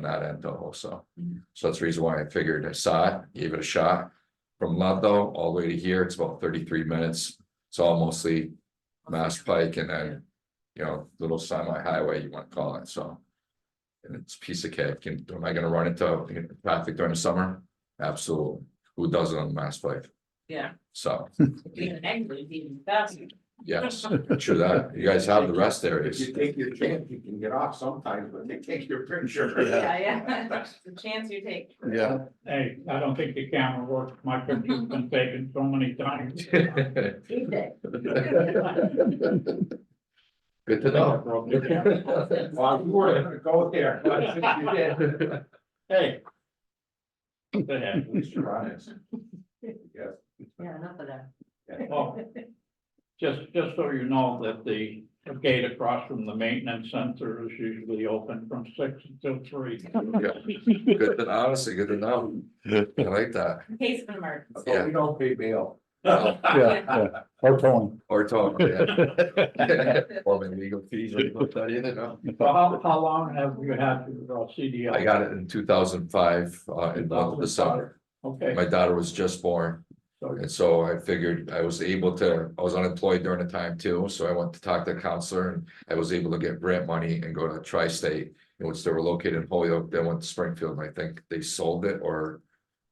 not in Toho, so. Mm-hmm. Mhm. So that's the reason why I figured I saw it, gave it a shot. From Ludlow all the way to here, it's about thirty-three minutes. It's all mostly Mass Pike and then, you know, little semi-highway you wanna call it, so. And it's a piece of cake. Can, am I gonna run into traffic during the summer? Absolutely. Who doesn't on Mass Pike? Yeah. So, Being angry, being faster. yes, sure that, you guys have the rest If areas. you take your chance, you can get off sometimes, but they take your picture. Yeah, yeah, the chance you take. Yeah. Hey, I don't think the camera works. My picture's been taken so many times. Good to know. Well, you weren't gonna go there, but since you did, Hey. Go ahead. at least you're honest. Yes. Yeah, enough of that. Oh, Just, just so you know that the gate across from the maintenance center is usually open from six until three. Good, to- honestly, good to know. I like that. In case of an emergency. But we don't pay bail. Yeah, yeah, or towing. Or talk. yeah. Or my legal fees, I put that in, you know? So how, how long have you had your uh, CDL? I got it in two thousand five, uh, in the month of December. Okay, My daughter was just born. And so I figured I was able to, I was unemployed during the time too, so I went to talk to a counselor and I was able to get grant money and go to tri-state. And which they were located in Holyoke, then went to Springfield, and I think they sold it or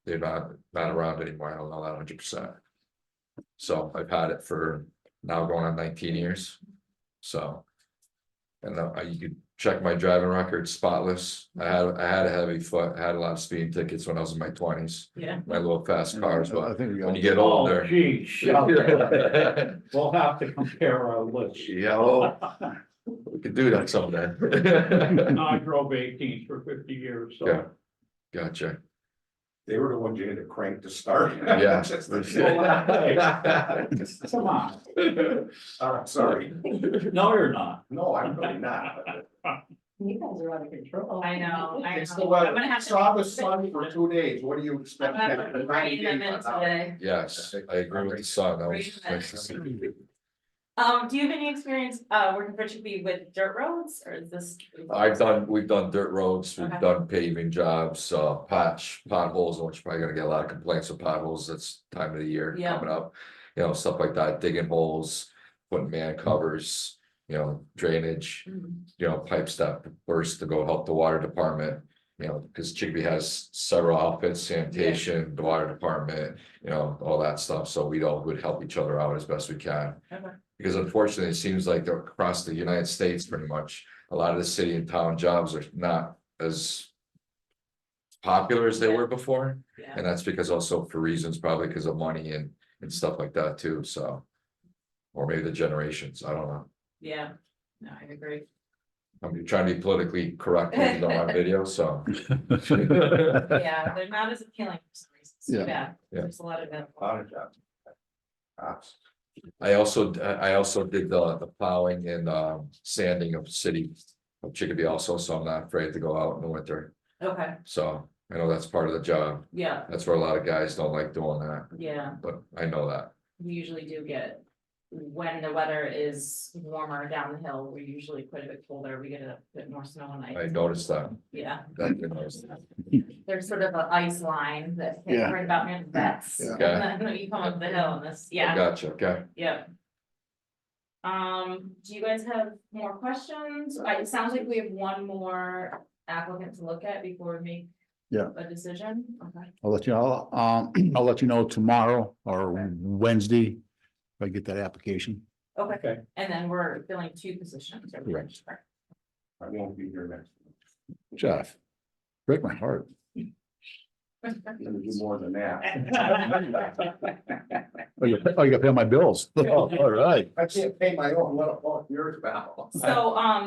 they're not, not around anymore, I don't know that hundred percent. So I've had it for now going on nineteen years, so. And I, you could check my driving record spotless, I had, I had a heavy foot, I had a lot of speeding tickets when I was in my twenties, Yeah. my little fast cars, but I think we when you got. get Oh, older. gee, shucks. We'll have to compare our list. Yeah, oh, we could do that someday. No, I drove eighteen for fifty years, Yeah. so. Gotcha, They were the ones you had to crank to start. Yeah. Just to slow down. Come on, Uh, sorry, no, you're not. no, I'm really not. You guys are out of control. I know, I know. It's the weather. I'm gonna have to- uh, Saw the sun for two days, what do you I'm expect? gonna have to rein them in today. yes, I agree with the son, that was. nice to see. Um, do you have any experience, uh, working for Chippy with dirt roads or is this? I've done, we've done dirt roads, we've Okay. done paving jobs, uh, patch, potholes, which probably gonna get a lot of complaints with potholes, that's time of the year Yeah. coming up. You know, stuff like that, digging holes, putting man covers, you know, drainage, Mhm. you know, pipe step first to go help the water department. You know, because Chigbee has several outfits, sanitation, the water department, you know, all that stuff, so we all would help each other out as best we can. Okay. Because unfortunately, it seems like they're across the United States pretty much, a lot of the city and town jobs are not as. Popular as they were before, Yeah, and that's because also for reasons probably because of money and and stuff like that too, so. Or maybe the generations, I don't know. yeah, no, I agree. I'm trying to be politically correct when it's on my video, so. Yeah, they're not as appealing for some reason. It's too Yeah. bad. Yeah. There's a lot of them. Lot of jobs. Cops. I also, I also did the, the plowing and, um, sanding of city of Chicopee also, so I'm not afraid to go out in the winter. Okay, So I know that's part of the job. yeah, That's where a lot of guys don't like doing that, yeah, but I know that. we usually do get. When the weather is warmer down the hill, we usually quite a bit colder, we get a bit more snow and I ice, noticed that. yeah. That, you know, There's sort of an ice line that hits Yeah. right about near the vets. Yeah. And then you come up the hill and this, yeah, Gotcha, okay. yeah. Um, do you guys have more questions? I- It sounds like we have one more applicant to look at before we make. Yeah. A decision, okay, I'll let you, know. um, I'll let you know tomorrow or Okay. Wednesday, if I get that application. okay. Okay. And then we're filling two positions. right? Correct. I won't be here next. week. Jeff, break my heart. I'm gonna do more than that. Oh, you, oh, you gotta pay my bills. Oh, All right. I can't pay my own, let alone yours, pal. So, um,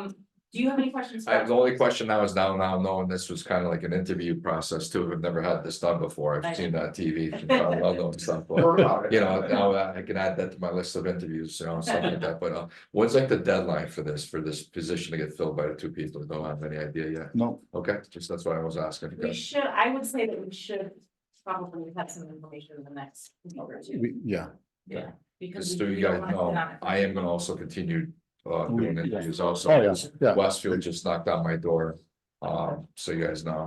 do you have any questions? for I, the us? only question now is now, now knowing this was kind of like an interview process too. I've never had this done before. I I've seen that on TV. I love those stuff. but- Heard about it. You know, now uh, I I can add that to my list of interviews, you know, stuff like that, but uh, what's like the deadline for this, for this position to get filled by the two people? Don't have any idea yet. No, Okay, just that's what I was asking. We should, I would say that we should probably have some information in the next week or two. we- yeah, Yeah. because Just we- so we you don't guys wanna sit on know, it for I am too gonna long. also continue uh We- doing yeah. interviews also. oh, yeah, yeah. Westfield just knocked on my door Um, so you guys know.